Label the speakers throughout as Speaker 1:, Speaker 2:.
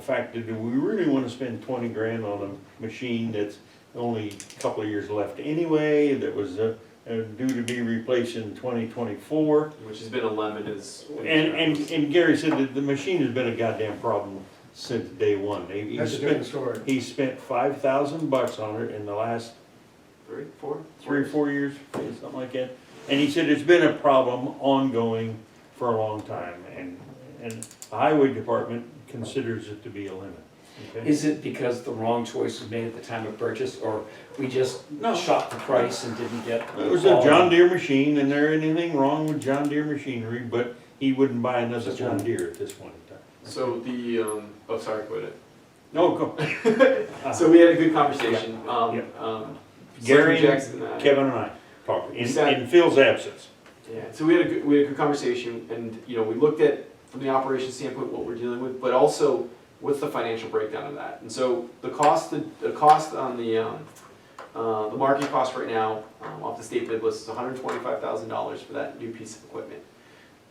Speaker 1: fact, do we really wanna spend twenty grand on a machine that's only a couple of years left anyway, that was, uh, uh, due to be replaced in twenty twenty-four?
Speaker 2: which has been eleven is.
Speaker 1: And, and, and Gary said that the machine has been a goddamn problem since day one. They- he
Speaker 3: That's a
Speaker 1: spent-
Speaker 3: different story.
Speaker 1: He spent five thousand bucks on it in the last
Speaker 2: Three, four?
Speaker 1: three or four years, something like that. And he said it's been a problem ongoing for a long time and, and the highway department considers it to be a limit. okay?
Speaker 4: Is it because the wrong choice was made at the time of purchase, or we just
Speaker 1: No.
Speaker 4: shot the price and didn't get?
Speaker 1: It was a John Deere machine and there ain't anything wrong with John Deere machinery, but he wouldn't buy another John Deere at this point in time.
Speaker 2: So the, um, oh, sorry, quit it.
Speaker 1: No, go,
Speaker 2: So we had a good conversation, um,
Speaker 1: Uh-huh. Yeah.
Speaker 2: um.
Speaker 1: Gary
Speaker 2: Selectman
Speaker 1: and
Speaker 2: Jackson uh, and I-
Speaker 1: Kevin and I talked, in,
Speaker 2: Sat-
Speaker 1: in Phil's absence.
Speaker 2: Yeah, so we had a good, we had a good conversation, and, you know, we looked at, from the operations standpoint, what we're dealing with, but also, what's the financial breakdown of that? And so, the cost, the, the cost on the, um, uh, the market cost right now, um, off the state bid list is hundred twenty-five thousand dollars for that new piece of equipment.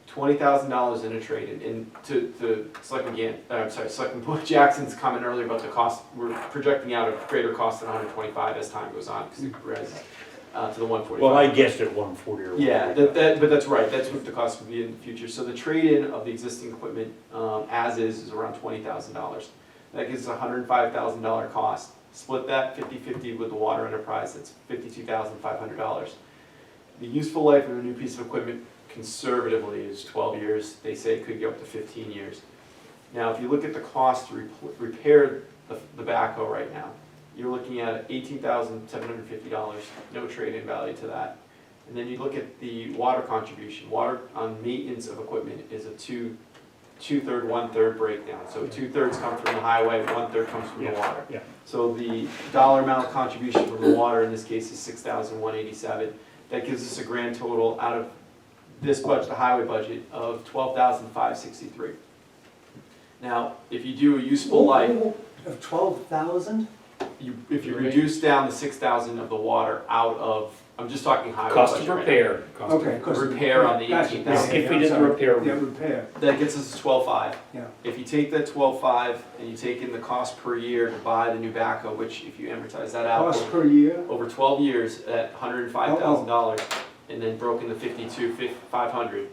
Speaker 2: Twenty thousand dollars in a trade, and, and to, to, Selectman Gan, uh, I'm sorry, Selectman Jackson's comment earlier about the cost, we're projecting out a greater cost than hundred twenty-five as time goes on, because it rises, uh, to the one forty-five.
Speaker 1: Well, I guessed at one forty or one.
Speaker 2: Yeah, that, that, but that's right, that's what the cost would be in the future, so the trade-in of the existing equipment, um, as is, is around twenty thousand dollars. That gives a hundred and five thousand dollar cost, split that fifty-fifty with the water enterprise, that's fifty-two thousand five hundred dollars. The useful life of a new piece of equipment conservatively is twelve years, they say it could go up to fifteen years. Now, if you look at the cost to repl- repair the, the backhoe right now, you're looking at eighteen thousand seven hundred fifty dollars, no trade-in value to that. And then you look at the water contribution, water on maintenance of equipment is a two, two-third, one-third breakdown. So two-thirds come from the highway, one-third comes from the
Speaker 1: Yeah,
Speaker 2: water.
Speaker 1: yeah.
Speaker 2: So the dollar amount contribution from the water in this case is six thousand one eighty-seven. That gives us a grand total out of this budget, the highway budget, of twelve thousand five sixty-three. Now, if you do a useful life,
Speaker 3: Of twelve thousand?
Speaker 2: you, if you reduce down the six thousand of the water out of, I'm just talking highway budget
Speaker 4: Cost of
Speaker 2: right now.
Speaker 4: repair. cost of-
Speaker 3: Okay, of course.
Speaker 2: Repair on the
Speaker 3: Gotcha.
Speaker 2: 18,000.
Speaker 4: If we did the repair, we-
Speaker 3: Yeah, repair,
Speaker 2: That gets us to twelve-five.
Speaker 3: yeah.
Speaker 2: If you take that twelve-five and you take in the cost per year to buy the new backhoe, which if you amortize that out
Speaker 3: Cost per year?
Speaker 2: over twelve years at hundred and five thousand dollars, and then broken to fifty-two, five hundred.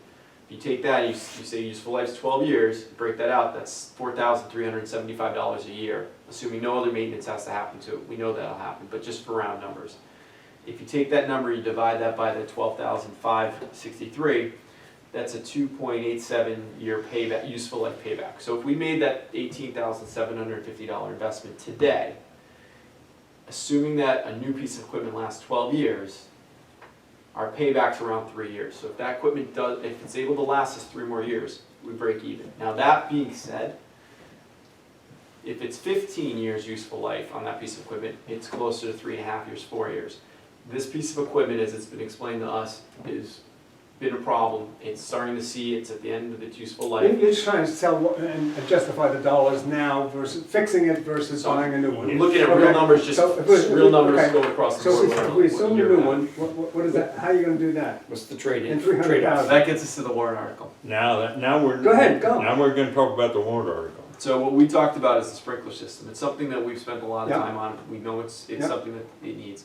Speaker 2: If you take that, you, s- you say useful life's twelve years, break that out, that's four thousand three hundred and seventy-five dollars a year, assuming no other maintenance has to happen to it, we know that'll happen, but just for round numbers. If you take that number, you divide that by the twelve thousand five sixty-three, that's a two point eight seven year payback, useful life payback. So if we made that eighteen thousand seven hundred and fifty dollar investment today, assuming that a new piece of equipment lasts twelve years, our payback's around three years. So if that equipment does, if it's able to last us three more years, we break even. Now, that being said, if it's fifteen years useful life on that piece of equipment, it's closer to three and a half years, four years. This piece of equipment, as it's been explained to us, is been a problem. It's starting to see it's at the end of its useful
Speaker 3: You're
Speaker 2: life.
Speaker 3: you're just trying to sell what- and justify the dollars now versus fixing it versus
Speaker 2: So,
Speaker 3: buying a new one.
Speaker 2: Looking at real
Speaker 3: Okay,
Speaker 2: numbers, just
Speaker 3: so if we- if
Speaker 2: real
Speaker 3: we-
Speaker 2: numbers
Speaker 3: okay.
Speaker 2: go across the
Speaker 3: So
Speaker 2: board.
Speaker 3: if
Speaker 2: what-
Speaker 3: if we
Speaker 2: what
Speaker 3: assume
Speaker 2: year
Speaker 3: a new
Speaker 2: we're at.
Speaker 3: one, what, what- what is that, how are you gonna do that?
Speaker 4: What's the trade-in?
Speaker 3: And 300,000.
Speaker 4: Trade-off.
Speaker 2: So that gets us to the warrant article.
Speaker 1: Now, that- now we're.
Speaker 3: Go ahead, go.
Speaker 1: Now we're gonna talk about the warrant article.
Speaker 2: So what we talked about is the sprinkler system. It's something that we've spent a lot of
Speaker 3: Yeah.
Speaker 2: time on. We know it's, it's
Speaker 3: Yeah.
Speaker 2: something that it needs.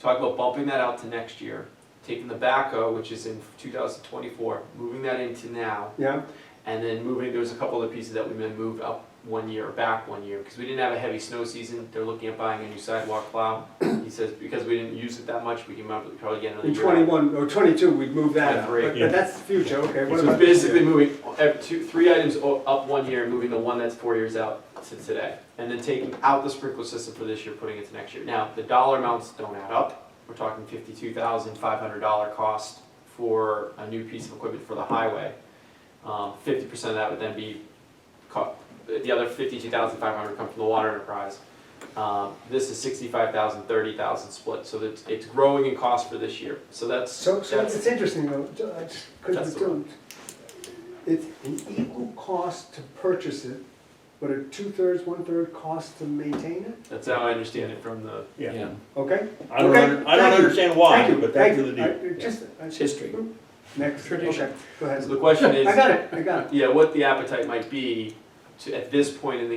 Speaker 2: Talk about bumping that out to next year, taking the backhoe, which is in two thousand twenty-four, moving that into now,
Speaker 3: Yeah,
Speaker 2: and then moving, there's a couple other pieces that we may move up one year or back one year, because we didn't have a heavy snow season. They're looking at buying a new sidewalk plow. He says, because we didn't use it that much, we can probably probably get another
Speaker 3: in
Speaker 2: year.
Speaker 3: twenty-one, or twenty-two, we'd move that out,
Speaker 2: Twenty-three,
Speaker 3: but,
Speaker 1: yeah.
Speaker 3: but that's the future, okay, what
Speaker 2: So
Speaker 3: about
Speaker 2: it's
Speaker 3: this
Speaker 2: basically
Speaker 3: year?
Speaker 2: moving ev- two, three items o- up one year and moving the one that's four years out to today. And then taking out the sprinkler system for this year, putting it to next year. Now, the dollar amounts don't add up. We're talking fifty-two thousand five hundred dollar cost for a new piece of equipment for the highway. Um, Fifty percent of that would then be, co- the other fifty-two thousand five hundred come from the water enterprise. Um, This is sixty-five thousand, thirty thousand split, so it's, it's growing in cost for this year. So that's,
Speaker 3: So, so
Speaker 2: that's
Speaker 3: it's interesting though, ju- I just couldn't
Speaker 2: That's the
Speaker 3: do it. It's an equal cost to purchase it, but a two-thirds, one-third cost to maintain it,
Speaker 2: That's how I understand it from the.
Speaker 4: Yeah,
Speaker 3: okay?
Speaker 1: I don't, under-
Speaker 3: Okay,
Speaker 1: I don't
Speaker 3: thank you.
Speaker 1: understand why,
Speaker 3: Thank you,
Speaker 1: but
Speaker 3: thank
Speaker 1: that's
Speaker 3: you.
Speaker 1: the
Speaker 3: I-
Speaker 1: deal.
Speaker 3: it Just, I-
Speaker 4: it's history.
Speaker 3: next,
Speaker 4: Tradition.
Speaker 3: okay, go
Speaker 2: So
Speaker 3: ahead.
Speaker 2: the question is,
Speaker 3: I got it, I got it.
Speaker 2: yeah, what the appetite might be to, at this point in the